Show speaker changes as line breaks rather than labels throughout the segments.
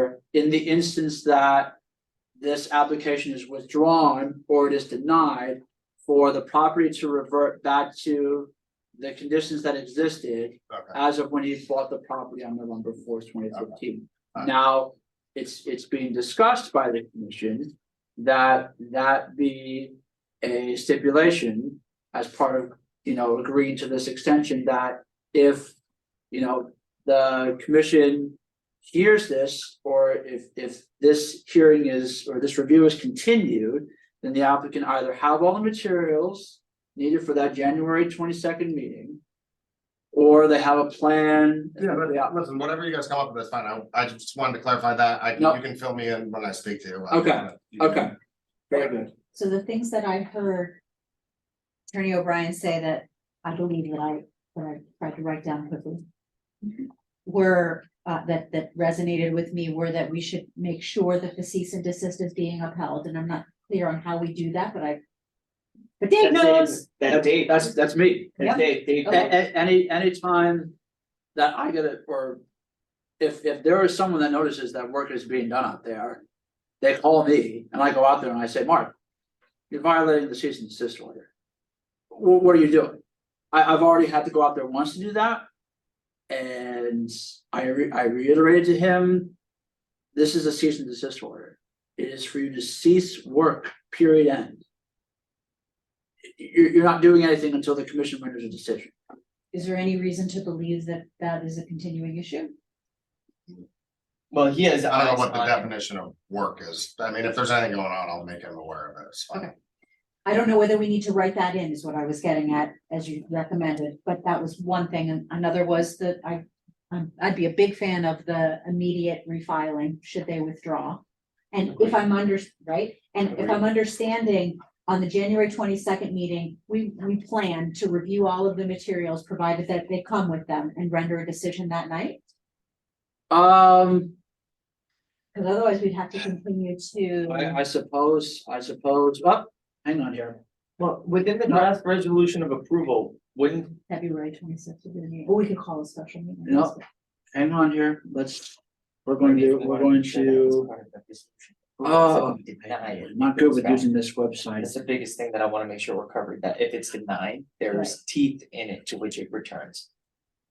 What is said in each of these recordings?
board in the instance that this application is withdrawn or it is denied for the property to revert back to the conditions that existed
Okay,
as of when he bought the property on November fourth, twenty fifteen.
Okay.
Now, it's, it's being discussed by the commission that that be a stipulation as part of, you know, agreeing to this extension that if, you know, the commission hears this, or if, if this hearing is, or this review is continued, then the applicant either have all the materials needed for that January twenty-second meeting, or they have a plan.
yeah, but listen, whatever you guys come up with, that's fine, I, I just wanted to clarify that, I,
No.
you can fill me in when I speak to you.
Okay,
You can-
Okay. Very good.
So the things that I heard. Attorney O'Brien say that I believe that I, that I tried to write down quickly.
Mm-hmm.
Were, uh, that, that resonated with me were that we should make sure that the cease and desist is being upheld, and I'm not clear on how we do that, but I. But Dave
That's it.
knows,
That date,
That's, that's me.
that date, date.
A- a- any, anytime that I get it, or if, if there is someone that notices that work is being done out there, they call me and I go out there and I say, Mark, you're violating the cease and desist order. What, what are you doing? I, I've already had to go out there once to do that. And I re- I reiterated to him, this is a cease and desist order. It is for you to cease work, period end. You're, you're not doing anything until the commission renders a decision.
is there any reason to believe that that is a continuing issue?
Well, he has
I don't
eyes
know what the
on it.
definition of work is, I mean, if there's anything going on, I'll make him aware of it, it's fine.
Okay. I don't know whether we need to write that in is what I was getting at, as you recommended, but that was one thing, and another was that I. I'm, I'd be a big fan of the immediate refiling, should they withdraw. And if I'm under, right, and if I'm understanding, on the January twenty-second meeting, we, we plan to review all of the materials, provided that they come with them and render a decision that night.
Um,
Cause otherwise we'd have to continue to,
I, I suppose, I suppose, oh, hang on here.
Well, within the draft resolution of approval, wouldn't,
February twenty-sixth, or we could call a special meeting.
No. hang on here, let's, we're going to, we're going to, oh, I'm not good with using this website.
That's the biggest thing that I wanna make sure we're covered, that if it's denied, there's teeth in it to which it returns.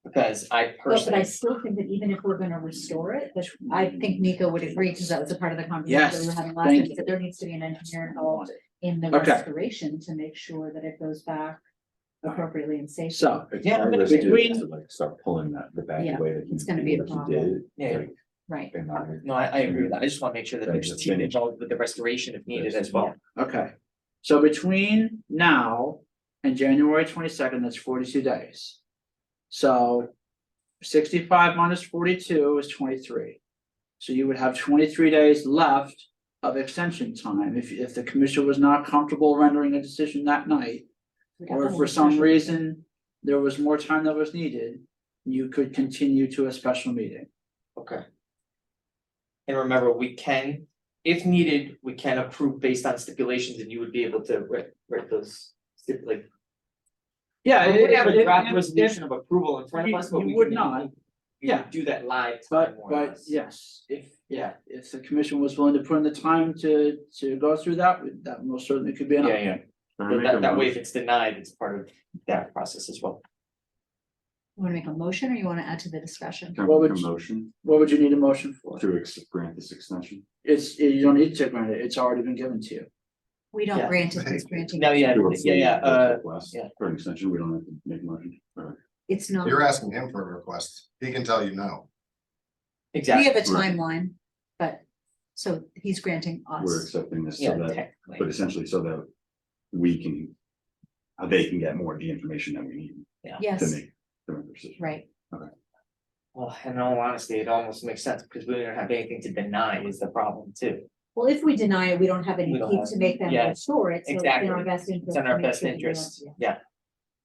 Because I
Well, but I
personally,
still think that even if we're gonna restore it, which I think Nico would agree, because that was a part of the conversation we were
Yes,
having last
thank
week,
you.
that there needs to be an engineer involved in the
Okay.
restoration to make sure that it goes back appropriately and safely.
So,
Yeah,
I
but
risked it
between-
to, Like start pulling that, the back
Yeah,
away that he.
it's gonna be a
that he
problem.
did,
Yeah.
like,
Right,
and I-
no, I, I agree with that, I just wanna make sure that
That
there's
just
teeth
finished.
involved with the restoration if needed as well.
okay, so between now and January twenty-second, that's forty-two days. So sixty-five minus forty-two is twenty-three. So you would have twenty-three days left of extension time, if, if the commission was not comfortable rendering a decision that night.
We got
or
the
if
whole
for some
discussion.
reason there was more time that was needed, you could continue to a special meeting.
Okay. And remember, we can, if needed, we can approve based on stipulations and you would be able to write, write those stipulate.
Yeah.
We would
it-
have a
it-
draft
it-
resolution of approval in front
You-
of us, but
you
we
would
can-
not.
we
Yeah.
could Do that live.
But,
time or
but
less.
yes, if, yeah, if the commission was willing to put in the time to, to go through that, we- that most certainly could be an
Yeah,
option.
yeah,
Can
But
I make a
that, that way,
motion?
if it's denied, it's part of that process as well.
You Wanna make a motion or you wanna add to the discussion?
Can I
what
make a
would you-
motion
What would you need a motion for?
to ex- grant this extension?
It's, you don't need to grant it, it's already been given to you.
We don't
Yeah.
grant it, it's granting,
No, yeah,
Sure,
yeah, yeah,
we'll
uh,
take last-
yeah.
For an extension, we don't have to make a motion. Alright.
it's not,
You're asking him for a request, he can tell you no.
we
exactly,
have a
Right.
timeline, but, so he's granting
We're
us.
accepting this
yeah,
so that, but
technically,
essentially so that we can, uh, they can get more of the information that we need to
Yes,
make the right decision.
right,
well, in all honesty, it almost makes sense, because we don't have anything to deny is the problem too.
well, if we deny it, we don't have any
We don't
teeth
have
to make them
yeah,
restore it, so it's in our
exactly.
best interest.
It's in
to
our
make
best
sure that we don't-
interest,
yeah.
yeah.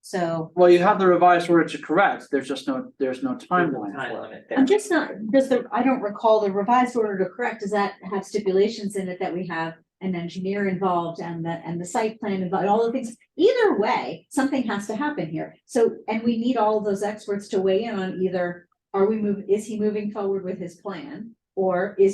So
Well, you have the revised order to correct, there's just no, there's no
There's no
timeline
time
for it.
limit there.
I'm just not, does the, I don't recall the revised order to correct, does that have stipulations in it that we have an engineer involved and the, and the site plan involved, all the things? Either way, something has to happen here. So, and we need all of those experts to weigh in on either, are we move, is he moving forward with his plan? Or is